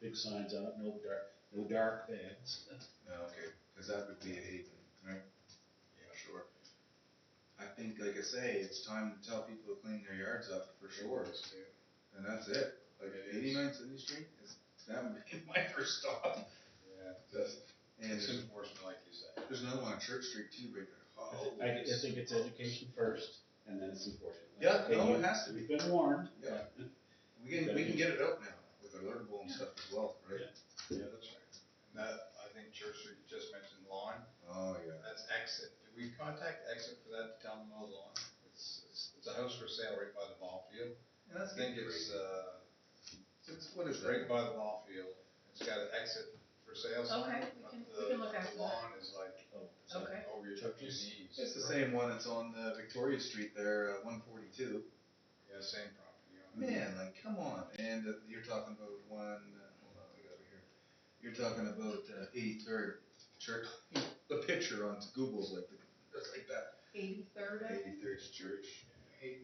big signs on it, no dark, no dark bags. No, okay, because that would be a haven, right? Yeah, sure. I think, like I say, it's time to tell people to clean their yards up for sure, and that's it. Like It is. eighty-nine City Street is that would be my first stop. Yeah, that's, And it's there's, enforcement like you said. there's another one on Church Street too, right there. I, Oh, thi- I I think it's education first, and then it's enforcement. Yeah, Hey, no, you- it has to be. You've been warned. Yeah. We can we can get it out now with alert bowl and stuff as well, right? Yeah, that's right. And that, I think Church Street, you just mentioned lawn, Oh yeah. that's exit. Did we contact exit for that to tell them about lawn? It's, it's, it's a house for sale right by the ball field. And that's I think getting it's, crazy. uh, It's- what is It's that? right by the ball field. It's got an exit for sale sign. Okay, we but can- we the- can look after The that. lawn is like, Oh, it's like Okay. over your, up to your knees. It's the same one. It's on the Victoria Street there, uh, one forty-two. Yeah, same property owner. Man, like, come on. And uh, you're talking about one, uh, hold on, I got it here. You're talking about uh, 83rd Church. The picture on Google's like, the, it's like that. Eighty-third, I think. 83rd Church. Right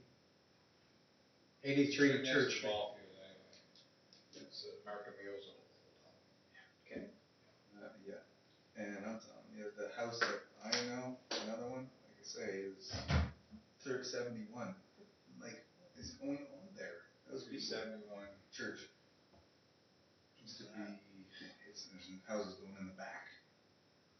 Eighty-three next to the Church Street. ball field anyway. It's uh, American Meals. Uh, yeah. And I'm telling you, the house that I know, another one, like I say, is 371. Like, what is going on there? That was Three seventy-one. church. Used to be, it's, there's houses going in the back.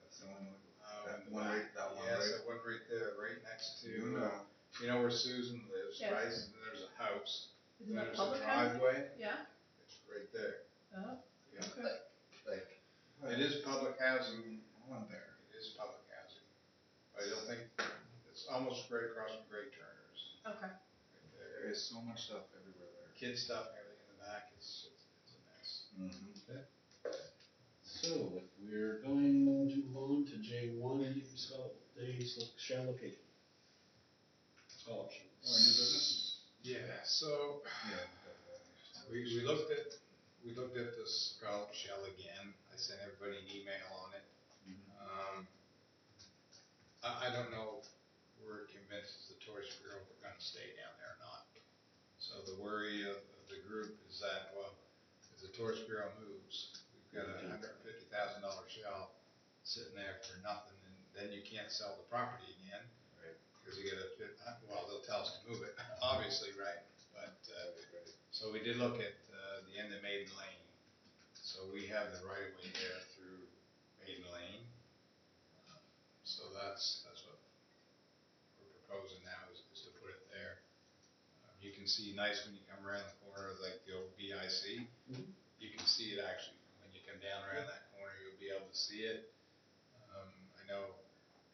That's the one, that one right, that one Yes, right that Uh, one right there, right next to, You uh, know, you know where Susan lives, Yes. right? And there's a house. Isn't that There's a public housing? driveway. Yeah, It's right there. oh, Yeah. okay. like. It is public housing. On there. It is public housing. But I don't think, it's almost right across from Greg Turner's. Okay, right There there. is so much stuff everywhere there. Kid stuff and everything in the back, it's, it's it's a mess. Mm-hmm. So if we're going to on to J one, you can spell it, days, look, shall locate. All options. Or new business? Yeah, so we, we looked at, we looked at this Golf Shell again. I sent everybody an email on it. Mm-hmm. Um, I, I don't know if we're convinced as the tourist bureau we're gonna stay down there or not. So the worry of, of the group is that, well, as the tourist bureau moves, we've got a hundred and fifty thousand dollar shell sitting there for nothing, and then you can't sell the property again. Right. Cause you gotta, fit- uh, well, they'll tell us to move it, obviously, right? But, uh, so we did look at, uh, the end of Maiden Lane. So we have the right of way there through Maiden Lane. So that's, that's what we're proposing now is, is to put it there. Um, You can see nice when you come around the corner, of, like the old BIC. Mhm. You can see it actually, when you come down around that corner, you'll be able to see it. Um, I know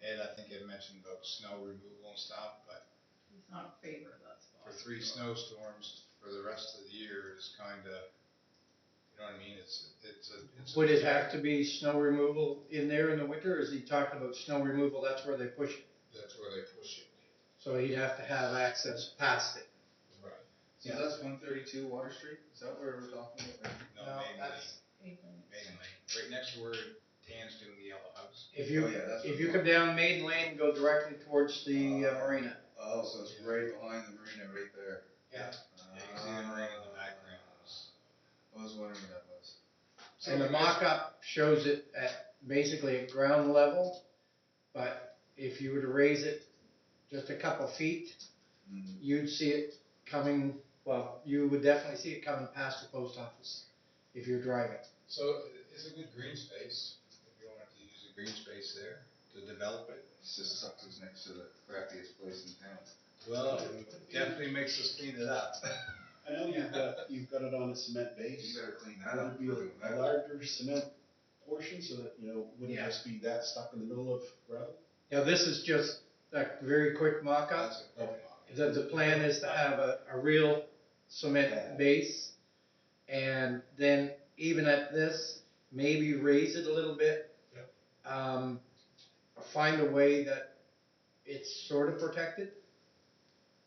Ed, I think had mentioned about snow removal and stuff, but he's not in favor of that spot. for three snowstorms for the rest of the year is kinda, you know what I mean, it's, it's a. it's a- Would it have to be snow removal in there in the winter, or is he talking about snow removal, that's where they push it? That's where they push it. So he'd have to have access past it. Right. So that's one thirty-two Water Street? Is that where we're talking about? right? No, No, Maiden Lane, that's- Maitland. Maiden Lane, right next to where Dan's doing the yellow house. If you, Oh, yeah, that's if what- you come down Maiden Lane, and go directly towards the uh, Uh, marina. Oh, so it's right behind the marina right there. Uh, Yeah. Yeah, you can see the marina Uh, in the background. I was wondering what that was. And the mock-up shows it at, basically at ground level, but if you were to raise it just a couple feet, Mm. you'd see it coming, well, you would definitely see it coming past the post office if you're driving. So it's a good green space, if you wanted to use a green space there to develop it. It's just sucks it's next to the crappiest place in town. Well, it definitely makes us clean it up. I know you've got, you've got it on a cement You base. better clean that That would up. be a larger cement portion so that, you know, wouldn't Yeah. just be that stuck in the middle of gravel. Now, this is just a very quick mock-up, That's a good mock. is that the plan is to have a, a real cement base, and then even at this, maybe raise it a little bit. Um, find a way that it's sort of protected.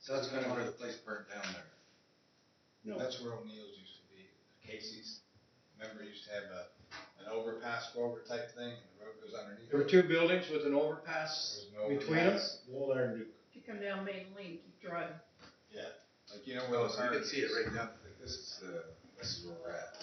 So that's kind of where the place burnt down there. No, That's where O'Neill's used to be, Casey's. Remember, used to have a, an overpass over type thing, and the road goes underneath. There were two buildings with an overpass There's no between them. overpass. the old iron duke. If you come down Maiden Lane, keep driving. Like, Oh, you know where Well, the so you car can see it is. right down, like, this is, uh, this is where we're at.